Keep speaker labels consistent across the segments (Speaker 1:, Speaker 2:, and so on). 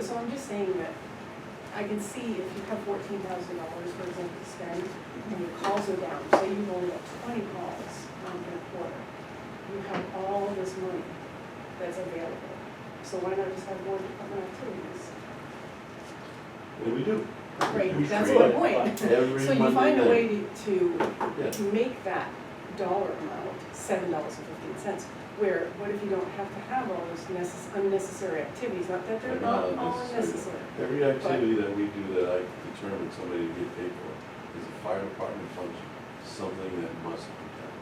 Speaker 1: so I'm just saying that I can see if you have fourteen thousand dollars, for example, to spend, and your calls are down, say you've only got twenty calls um, in a quarter. You have all this money that's available, so why not just have one department activities?
Speaker 2: Well, we do. We
Speaker 1: Right, that's
Speaker 2: create
Speaker 1: my
Speaker 2: it
Speaker 1: point.
Speaker 2: Every
Speaker 1: So you
Speaker 2: Monday
Speaker 1: find a way
Speaker 2: night.
Speaker 1: to, to
Speaker 2: Yeah.
Speaker 1: to make that dollar amount seven dollars and fifteen cents. Where, what if you don't have to have all those necess- unnecessary activities, not that they're
Speaker 2: They're
Speaker 1: not
Speaker 2: not
Speaker 1: all
Speaker 2: unnecessary.
Speaker 1: necessary.
Speaker 2: Every activity that we do that I determine somebody to get paid for is a fire department function, something that must be done.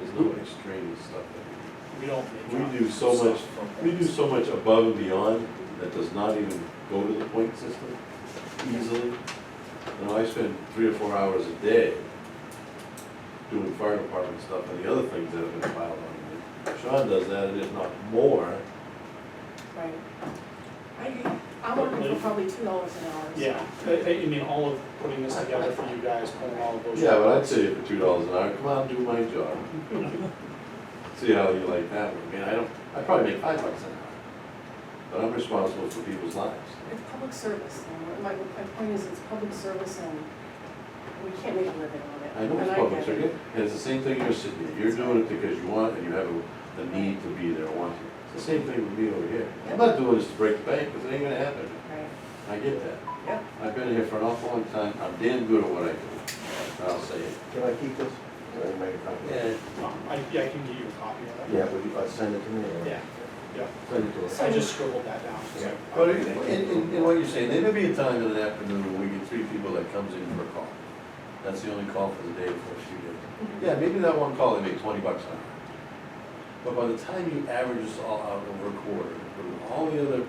Speaker 2: There's no extraneous stuff that
Speaker 3: We don't. make
Speaker 2: We do so
Speaker 3: stuff
Speaker 2: much-
Speaker 3: from
Speaker 2: we do. We do
Speaker 3: things.
Speaker 2: so much above and beyond that does not even go to the point system easily. You know, I spend three or four hours a day doing fire department stuff and the other things that have been piled on me. Sean does that, and if not more,
Speaker 1: Right. I, I'm working for probably two dollars an hour. so-
Speaker 3: Yeah, I, I- I mean, all of putting this together for you guys, pulling all of those.
Speaker 2: Yeah, but I'd say for two dollars an hour, come on, do my job. See how you like that one, I mean, I don't, I probably make five bucks an hour, but I'm responsible for people's lives.
Speaker 1: It's public service, and my, my point is, it's public service and we can't make a living on it.
Speaker 2: I know
Speaker 1: and
Speaker 2: it's
Speaker 1: get
Speaker 2: public
Speaker 1: it.
Speaker 2: service, and it's the same thing you're sitting here, you're doing it because you want and you have a, the need to be there, want to. It's the same thing with me over here, I'm not doing this to break the bank, because it ain't gonna happen,
Speaker 1: Right,
Speaker 2: I get that.
Speaker 1: yep,
Speaker 2: I've been here for an awful long time, I'm damn good at what I do, I'll say it.
Speaker 4: Can I keep this? Can I make a copy?
Speaker 3: Um, I, yeah, I can give you a copy of that.
Speaker 4: Yeah, would you, uh, send it to me? or-
Speaker 3: Yeah. Yeah,
Speaker 4: Send it to us.
Speaker 1: So-
Speaker 3: I just scribbled that down. so-
Speaker 4: Yeah.
Speaker 2: But in, in, in what you're saying, there may be a time in an afternoon when we get three people that comes in for a call. That's the only call for the day for a few days. Yeah, maybe that one call, they make twenty bucks on it. But by the time you average this all out over a quarter, including all the other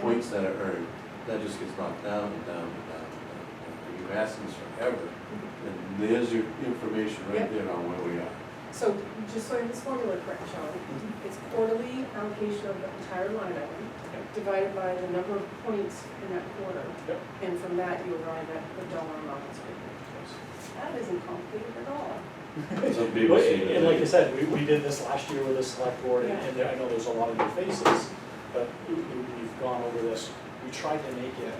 Speaker 2: points that are earned, that just gets knocked down and down and down and down. and You've asked this forever, and there's your information right
Speaker 1: Yep.
Speaker 2: there on where we are.
Speaker 1: so just so I have this formula correct, Sean,
Speaker 2: Mm-hmm.
Speaker 1: it's quarterly allocation of the entire line item
Speaker 3: Yep.
Speaker 1: divided by the number of points in that quarter.
Speaker 3: Yep.
Speaker 1: And from that, you arrive at the dollar amount that's paid. That isn't complicated at all.
Speaker 2: Some people
Speaker 3: But,
Speaker 2: see
Speaker 3: and
Speaker 2: that
Speaker 3: and like I
Speaker 2: they-
Speaker 3: said, we, we did this last year with the select board, and-
Speaker 1: Yeah.
Speaker 3: and there- I know there's a lot of new faces, but we- we- we've gone over this, we tried to make it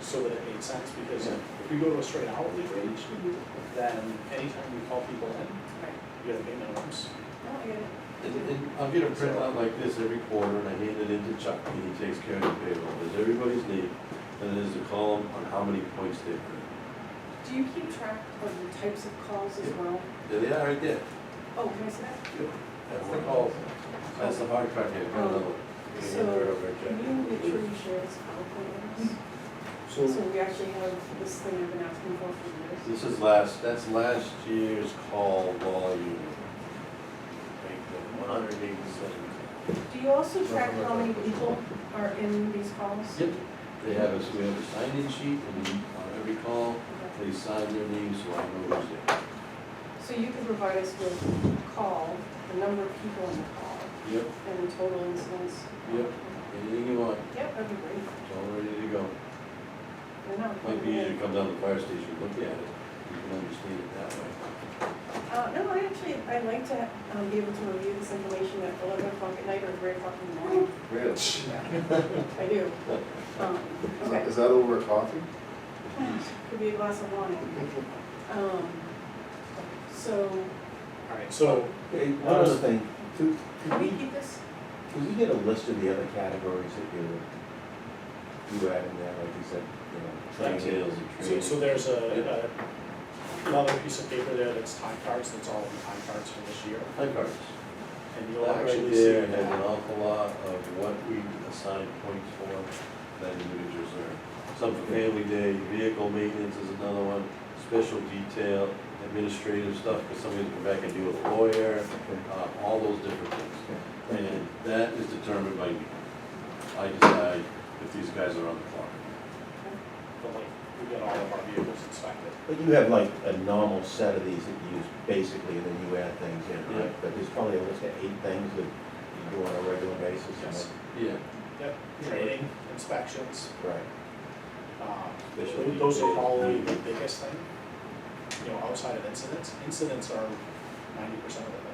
Speaker 3: so that it made sense, because if we go to a straight hourly wage,
Speaker 2: Mm-hmm.
Speaker 3: then anytime we call people in,
Speaker 1: Right.
Speaker 3: we gotta pay minimums.
Speaker 1: No, I get it.
Speaker 2: And, and I'll get a printout like this every quarter, and I hand it in to Chuck, and he takes care of the payroll, there's everybody's name, and there's a column on how many points they've earned.
Speaker 1: Do you keep track of the types of calls as well?
Speaker 2: There they are, right there,
Speaker 1: Oh, can I see that?
Speaker 2: that's the call, that's the hard part, here, got another one. Okay,
Speaker 1: Oh, So,
Speaker 2: they're over Mm-hmm. at
Speaker 1: Can you make
Speaker 2: Jack.
Speaker 1: sure you share this PowerPoint with us? So we actually have this thing I've been asking for for years.
Speaker 2: This is last, that's last year's call volume. One hundred eighty-seven.
Speaker 1: Do you also track how many people are in these calls?
Speaker 2: Yep, they have us, we have a sign-in sheet, and on every call,
Speaker 1: Okay.
Speaker 2: they sign their name, so I know who's there.
Speaker 1: So you can provide us with call, the number of people in the call,
Speaker 2: Yep,
Speaker 1: and the total incidents?
Speaker 2: Yep. anything you want,
Speaker 1: Yep, that'd be great.
Speaker 2: it's all ready to go.
Speaker 1: They're not-
Speaker 2: Might be easier to come down to the fire station, look at it, you can understand it that way.
Speaker 1: Uh, no, I actually, I'd like to, um, be able to review this information at eleven o'clock at night or three o'clock in the morning.
Speaker 2: Really?
Speaker 1: I do. Um,
Speaker 5: Is
Speaker 1: okay.
Speaker 5: that- Is that over coffee?
Speaker 1: Could be a glass of wine. Um, so,
Speaker 3: Alright, so,
Speaker 4: Hey, one other thing, could, could
Speaker 1: can we
Speaker 4: we,
Speaker 1: keep this?
Speaker 4: could we get a list of the other categories that you, you add in there, like you said, you know?
Speaker 2: Cocktails
Speaker 3: so,
Speaker 2: and
Speaker 3: so
Speaker 2: training.
Speaker 3: there's a, a- another piece of paper there that's time cards, that's all the time cards for this year,
Speaker 2: Time cards.
Speaker 3: and you'll
Speaker 2: That right
Speaker 3: actually see.
Speaker 2: there has an awful lot of what we assign points for that individuals earn. Some for family day, vehicle maintenance is another one, special detail, administrative stuff, because somebody's going back and deal with a lawyer, uh, all those different things. And that is determined by me. I decide if these guys are on the clock.
Speaker 3: But like, we get all of our vehicles inspected.
Speaker 4: But you have like a normal set of these that you use basically, and then you add things in,
Speaker 2: Yeah.
Speaker 4: right? But there's probably a list of eight things that you do on a regular basis. and
Speaker 3: Yes.
Speaker 2: Yeah.
Speaker 3: Yep, training, inspections,
Speaker 4: that- Right.
Speaker 3: um,
Speaker 2: Special
Speaker 3: tho- those are
Speaker 2: detail.
Speaker 3: probably the biggest thing. You know, outside of incidents, incidents are ninety percent of it.